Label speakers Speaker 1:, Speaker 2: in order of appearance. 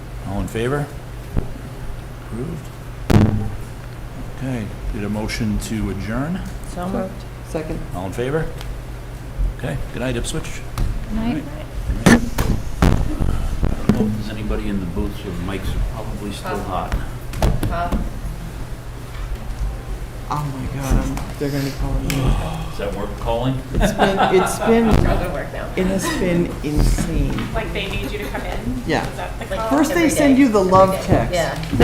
Speaker 1: All in favor? Approved. Okay, did a motion to adjourn?
Speaker 2: So moved.
Speaker 3: Second.
Speaker 1: All in favor? Okay, good night, Ipswich.
Speaker 4: Night.
Speaker 5: I don't know if there's anybody in the booth, so the mics are probably still hot.
Speaker 3: Oh my God, I'm- they're gonna be calling me.
Speaker 5: Is that worth calling?
Speaker 3: It's been, it's been,
Speaker 2: I'll go work now.
Speaker 3: it has been insane.
Speaker 6: Like they need you to come in?
Speaker 3: Yeah.
Speaker 6: Is that the call?
Speaker 3: First they
Speaker 2: Every
Speaker 3: send
Speaker 2: day.
Speaker 3: you the
Speaker 2: Every
Speaker 3: love
Speaker 2: day.
Speaker 3: text.
Speaker 2: Yeah.